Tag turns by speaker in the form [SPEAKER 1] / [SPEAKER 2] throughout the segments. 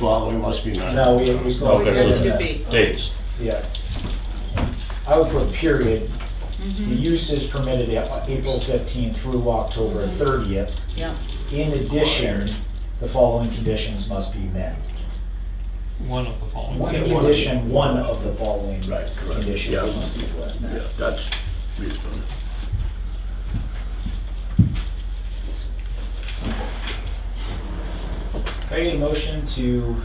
[SPEAKER 1] well, we must be not.
[SPEAKER 2] No, we, we
[SPEAKER 3] No,
[SPEAKER 2] go
[SPEAKER 3] there
[SPEAKER 2] ahead
[SPEAKER 3] isn't.
[SPEAKER 2] and,
[SPEAKER 4] Should
[SPEAKER 2] uh,
[SPEAKER 4] be.
[SPEAKER 3] Dates.
[SPEAKER 2] yeah. I would put period. The use is permitted at April fifteenth through October thirtieth.
[SPEAKER 4] Yeah,
[SPEAKER 2] In addition, the following conditions must be met.
[SPEAKER 5] One of the following.
[SPEAKER 2] In
[SPEAKER 1] Yeah, one.
[SPEAKER 2] addition, one of the following
[SPEAKER 1] Right, correct. Yeah.
[SPEAKER 2] conditions must be
[SPEAKER 1] Yeah,
[SPEAKER 2] met.
[SPEAKER 1] that's reasonable.
[SPEAKER 2] I need a motion to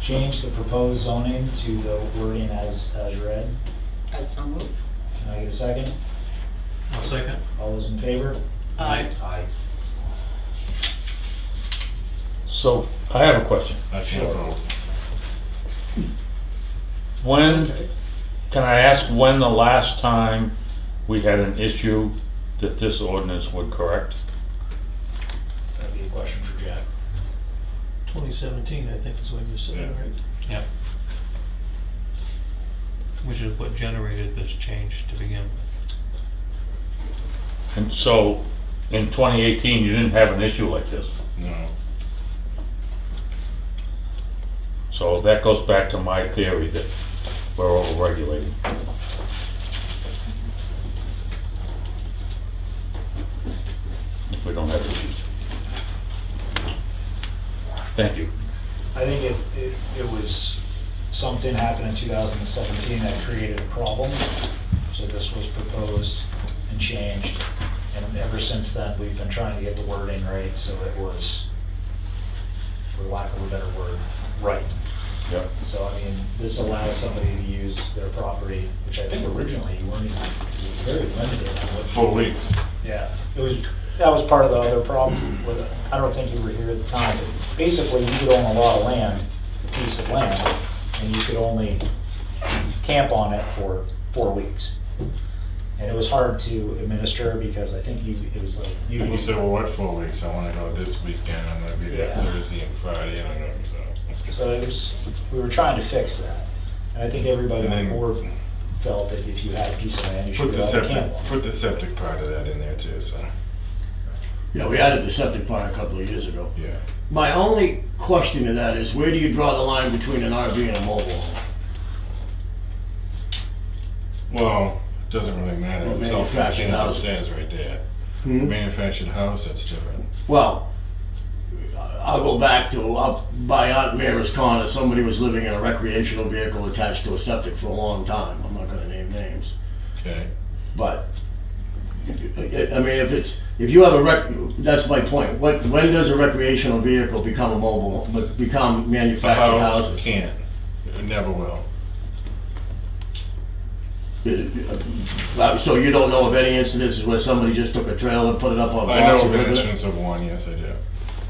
[SPEAKER 2] change the proposed zoning to the wording as, as read.
[SPEAKER 4] I so move.
[SPEAKER 2] Can I get a second?
[SPEAKER 5] I'll second.
[SPEAKER 2] All those in favor?
[SPEAKER 4] Aye.
[SPEAKER 2] Aye.
[SPEAKER 3] So I have a question.
[SPEAKER 6] I can't vote.
[SPEAKER 3] When, can I ask when the last time we had an issue that this ordinance would correct?
[SPEAKER 2] That'd be a question for Jack.
[SPEAKER 5] 2017, I think is when you said that, right? Yeah. We should have put generated this change to begin with.
[SPEAKER 3] And so, in 2018, you didn't have an issue like this.
[SPEAKER 6] No.
[SPEAKER 3] So that goes back to my theory that we're over-regulating. If we don't have issues. Thank you.
[SPEAKER 2] I think it, it, it was, something happened in 2017 that created a problem, so this was proposed and changed. And ever since then, we've been trying to get the wording right, so it was, for lack of a better word, right.
[SPEAKER 3] Yep.
[SPEAKER 2] So, I mean, this allows somebody to use their property, which I think originally you weren't, even- you were very limited on what
[SPEAKER 6] Four weeks.
[SPEAKER 2] yeah, it was, that was part of the other problem with it. I don't think you were here at the time. but Basically, you could own a lot of land, a piece of land, and you could only camp on it for four weeks. And it was hard to administer because I think you, it was like, you,
[SPEAKER 6] People say, well, what four weeks? I wanna go this weekend, I'm gonna be there
[SPEAKER 2] Yeah.
[SPEAKER 6] Thursday and Friday, and I'm gonna,
[SPEAKER 2] so it was, we were trying to fix that. And I think everybody
[SPEAKER 6] And
[SPEAKER 2] on
[SPEAKER 6] then-
[SPEAKER 2] board felt that if you had a piece of land, you should
[SPEAKER 6] Put
[SPEAKER 2] be
[SPEAKER 6] the
[SPEAKER 2] able to camp
[SPEAKER 6] septic,
[SPEAKER 2] on. it.
[SPEAKER 6] put the septic part of that in there too, so,
[SPEAKER 1] Yeah, we added the septic plan a couple of years ago.
[SPEAKER 6] yeah.
[SPEAKER 1] My only question to that is, where do you draw the line between an RV and a mobile home?
[SPEAKER 6] Well, it doesn't really matter,
[SPEAKER 1] Well,
[SPEAKER 6] it's
[SPEAKER 1] manufactured
[SPEAKER 6] self-contained, it
[SPEAKER 1] house.
[SPEAKER 6] says right there.
[SPEAKER 1] Hmm?
[SPEAKER 6] Manufactured house, that's different.
[SPEAKER 1] Well, I'll go back to, up by Aunt Mary's corner, somebody was living in a recreational vehicle attached to a septic for a long time. I'm not gonna name names.
[SPEAKER 6] Okay,
[SPEAKER 1] But, I I mean, if it's, if you have a rec, that's my point. What, when does a recreational vehicle become a mobile, but become
[SPEAKER 6] the
[SPEAKER 1] manufactured
[SPEAKER 6] house
[SPEAKER 1] houses?
[SPEAKER 6] can't, it never will.
[SPEAKER 1] Uh, So you don't know of any incidences where somebody just took a trailer, put it up on a
[SPEAKER 6] I
[SPEAKER 1] box and
[SPEAKER 6] know of an
[SPEAKER 1] driven it?
[SPEAKER 6] instance of one, yes, I do.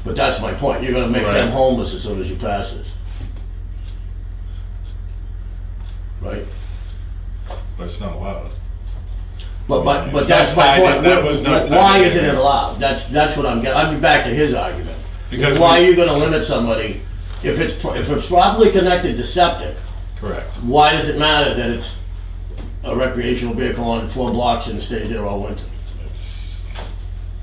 [SPEAKER 1] But that's my point, you're gonna make them
[SPEAKER 6] Right.
[SPEAKER 1] homeless as soon as you pass this. Right?
[SPEAKER 6] But it's not allowed.
[SPEAKER 1] But, but, but
[SPEAKER 6] It's
[SPEAKER 1] that's
[SPEAKER 6] not
[SPEAKER 1] my
[SPEAKER 6] tied in-
[SPEAKER 1] point.
[SPEAKER 6] that was not
[SPEAKER 1] Wh- Why
[SPEAKER 6] tied in.
[SPEAKER 1] isn't it allowed? That's, that's what I'm getting, I'm back to his argument.
[SPEAKER 6] Because
[SPEAKER 1] Why are
[SPEAKER 6] we-
[SPEAKER 1] you gonna limit somebody, if it's, pro- if it's properly connected to septic,
[SPEAKER 6] Correct.
[SPEAKER 1] why does it matter that it's a recreational vehicle on four blocks and stays there all winter?
[SPEAKER 6] It's,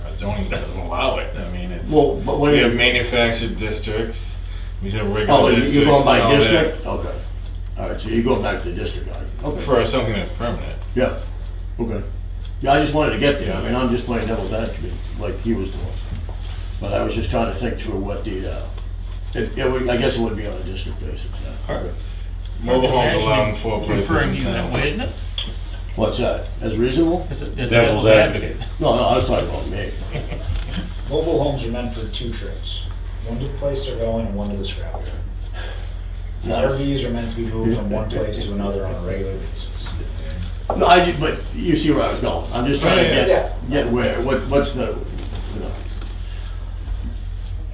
[SPEAKER 6] our zoning doesn't allow it, I mean, it's.
[SPEAKER 1] Well, but what do
[SPEAKER 6] We
[SPEAKER 1] you-
[SPEAKER 6] have manufactured districts, we have
[SPEAKER 1] Oh, you-
[SPEAKER 6] regular districts.
[SPEAKER 1] you're going
[SPEAKER 6] and
[SPEAKER 1] by
[SPEAKER 6] all that
[SPEAKER 1] district? Okay. All right, so you're going back to district, all right. Okay.
[SPEAKER 6] For something that's permanent.
[SPEAKER 1] Yeah, okay. Yeah, I just wanted to get there. I
[SPEAKER 6] Yeah.
[SPEAKER 1] mean, I'm just playing devil's advocate, like he was doing. But I was just trying to think through what the, uh, it, it would, I guess it would be on a district basis, yeah.
[SPEAKER 6] Mobile homes
[SPEAKER 5] Actually,
[SPEAKER 6] allowed in four places
[SPEAKER 5] Referring
[SPEAKER 6] in
[SPEAKER 5] you that way,
[SPEAKER 6] town.
[SPEAKER 5] isn't it?
[SPEAKER 1] What's that? As reasonable?
[SPEAKER 5] As a as a
[SPEAKER 3] Devil's
[SPEAKER 5] devil's advocate.
[SPEAKER 1] No, no, I was talking about me.
[SPEAKER 2] Mobile homes are meant for two trips, one to the place they're going and one to the scrap yard.
[SPEAKER 1] No,
[SPEAKER 2] RVs are meant to be moved from one place to another on a regular basis.
[SPEAKER 1] No, I, ju- but you see where I was going. I'm just trying to
[SPEAKER 6] Oh, yeah.
[SPEAKER 1] get, get where, what, what's the, you know.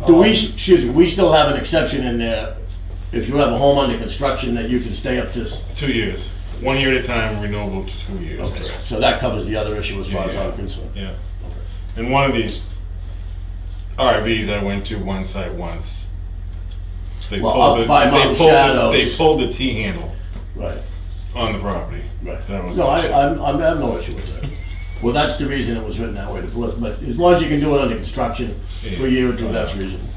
[SPEAKER 1] Do
[SPEAKER 6] Um,
[SPEAKER 1] we, excuse me, we still have an exception in there, if you have a home under construction, that you can stay up to s-
[SPEAKER 6] Two years, one year at a time, renewable to two years.
[SPEAKER 1] Okay, so that covers the other issue as far as
[SPEAKER 6] Yeah,
[SPEAKER 1] I'm concerned.
[SPEAKER 6] Yeah. And one of these RVs I went to one site once. They
[SPEAKER 1] Well,
[SPEAKER 6] pulled
[SPEAKER 1] up
[SPEAKER 6] the-
[SPEAKER 1] by
[SPEAKER 6] they
[SPEAKER 1] Mount
[SPEAKER 6] pulled the-
[SPEAKER 1] Shadows.
[SPEAKER 6] They pulled the T-handle
[SPEAKER 1] Right,
[SPEAKER 6] on the property.
[SPEAKER 1] right.
[SPEAKER 6] That was
[SPEAKER 1] No, I,
[SPEAKER 6] awesome.
[SPEAKER 1] I'm, I'm- I have no issue with that. Well, that's the reason it was written that way, to put- but as long as you can do it under construction for a year or two, that's reasonable.